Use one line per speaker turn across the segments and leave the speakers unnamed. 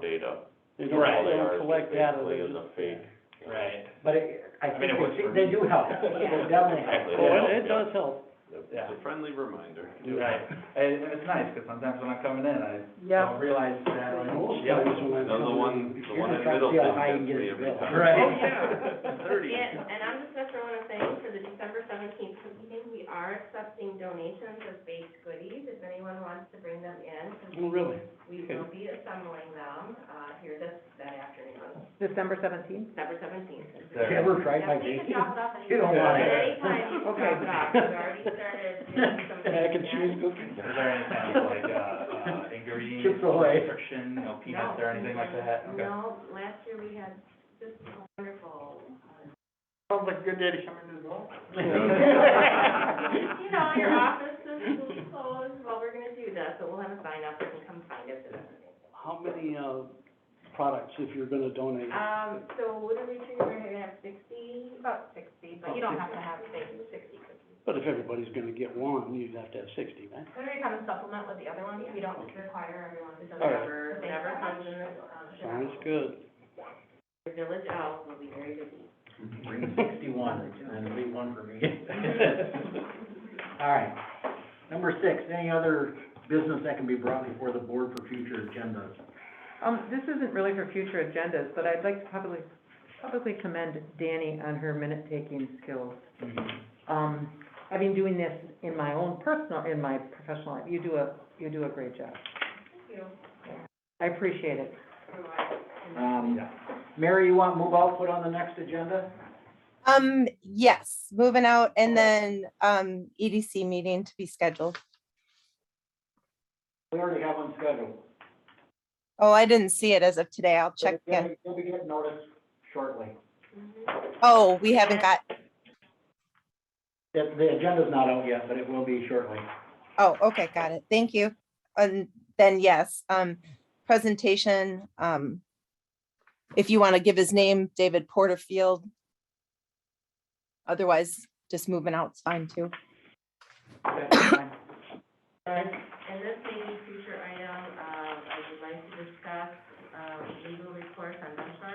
data.
They
All they
don't, they
are
don't
is
collect
just
data.
basically
they
is a
just-
fake.
Right.
But it, I
I
think
mean, it works
they,
for
they
me.
do help,
Yeah.
they definitely
Exactly.
help.
Oh, it, it does help.
Yeah.
It's a friendly reminder.
Right, and, and it's nice, because sometimes when I'm coming in, I don't realize that. I'm like,
Most
yeah.
times when I'm
Now, the
coming-
one,
If
the
you're
one
gonna
in
try to
middle
see how
didn't
high you
get
can
me
get
every
this
time.
bill.
Right.
Oh, yeah.
Thirty.
Yeah, and I'm just gonna throw in a thing for the December seventeenth meeting, we are accepting donations of baked goodies, if anyone wants to bring them in, since
Oh, really?
we will be assembling them, uh, here this, that afternoon,
December seventeenth?
December seventeenth.
Have you ever tried my
Yeah, please
baking?
can drop it off
You don't
anytime.
want it.
At any time, you can
Okay.
drop it off, we've already started doing some things.
Mac and cheese
there.
cookies.
Is there any kind of like, uh, uh, ingredients,
Chips Ahoy.
restriction, you know, peanuts or anything like that? Okay.
No, last year we had just wonderful, uh,
Sounds like a good day to come in as well.
You know, your offices will be closed while we're gonna do this, but we'll have a sign up, you can come find us. and everything.
How many, uh, products if you're gonna donate?
Um, so what are we doing, we're gonna have sixty? About sixty,
but you don't have
to have sixty. Sixty cookies.
But if everybody's gonna get one, you'd have to have sixty, right?
Then we kind of supplement with the other ones, we don't require everyone to
All right.
deliver, whatever comes in, um,
Sounds
Chicago.
good.
Your Village Elf will be very busy.
Bring sixty-one, and leave one for me.
All right. Number six, any other business that can be brought before the board for future agendas?
Um, this isn't really for future agendas, but I'd like to publicly, publicly commend Danny on her minute-taking skills.
Mm-hmm.
Um, I've been doing this in my own personal, in my professional life. You do a, you do a great job.
You know,
I appreciate it.
otherwise-
Um, Mary, you want move output on the next agenda?
Um, yes, moving out and then, um, EDC meeting to be scheduled.
We already have one scheduled.
Oh, I didn't see it as of today. I'll check again.
You'll be getting notice shortly.
Mhm.
Oh, we haven't got,
The, the agenda's not out yet, but it will be shortly.
oh, okay, got it. Thank you. And then, yes, um, presentation, um, if you want to give his name, David Porterfield. Otherwise, just moving out's fine too.
And, and this may be future item, um, I would like to discuss, um, legal recourse on this one.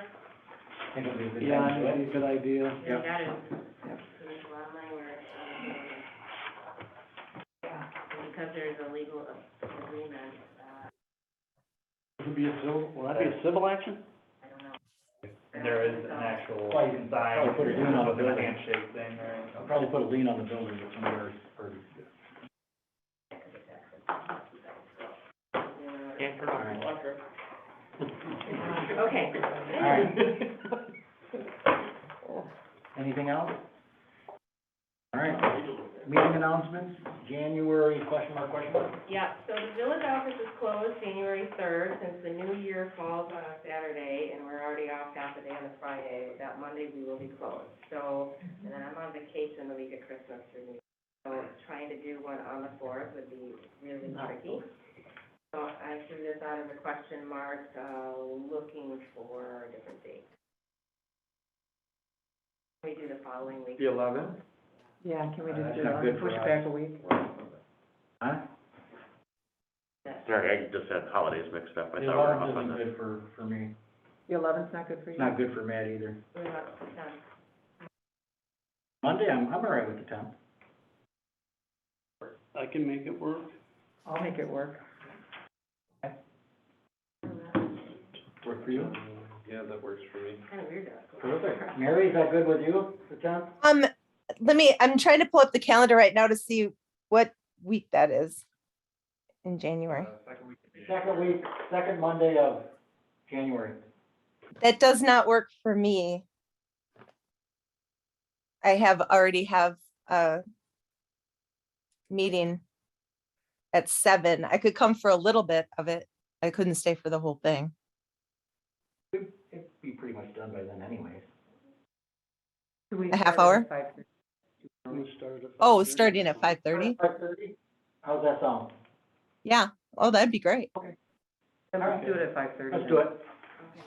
I think it'll be the
Yeah,
next
that'd
one.
be a good idea.
We
Yep.
got it. There's a lot of money where, um, because there's a legal agreement, uh,
It'd be a civil, will that be a civil action?
I don't know.
And there is an actual
Well, you can
sign,
probably put it in on the
with a
building.
handshake thing, right?
I'll probably put a lien on the building if somebody's, or,
Yeah.
all right.
Okay.
All right. Anything else? All right, meeting announcements, January, question mark, question mark?
Yeah, so the village office is closed January third, since the new year falls on a Saturday, and we're already off half a day on a Friday, but that Monday we will be closed. So,
Mm-hmm.
and then I'm on vacation the week of Christmas through New Year, so trying to do one on the fourth would be really tricky. So I threw this out as a question mark, uh, looking for a different date. We do the following week.
The eleventh?
Yeah, can we
Uh,
just
that's
do
not good
that?
for
Push
us.
back a week?
Huh?
Sorry, I just had holidays mixed up. I
The
thought we were
alarm
off on
isn't
that.
good for, for me,
The eleventh's not good for you?
it's not good for Matt either.
We're not done.
Monday, I'm, I'm all right with the tenth.
I can make it work.
I'll make it work.
Work for you?
Yeah, that works for me.
Kind of weird though.
Perfect. Mary, is that good with you, the tenth?
Um, let me, I'm trying to pull up the calendar right now to see what week that is in January.
Second week, second Monday of January.
That does not work for me. I have, already have a meeting at seven. I could come for a little bit of it. I couldn't stay for the whole thing.
It'd it'd be pretty much done by then anyways.
Do we
A half
start at
hour?
5:30?
We start at
Oh,
5:30.
starting at five thirty?
Five thirty? How's that sound?
Yeah. Oh, that'd be great.
Then Let's do it at five thirty.
Let's do it.
Okay.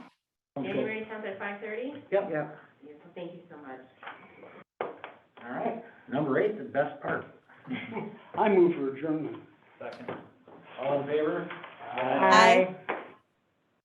Sounds good.
January tenth at five thirty?
Yep.
Yes, thank you so much.
All right, number eight, the best part.
I move for adjournment.
Second.
All in favor?
Aye.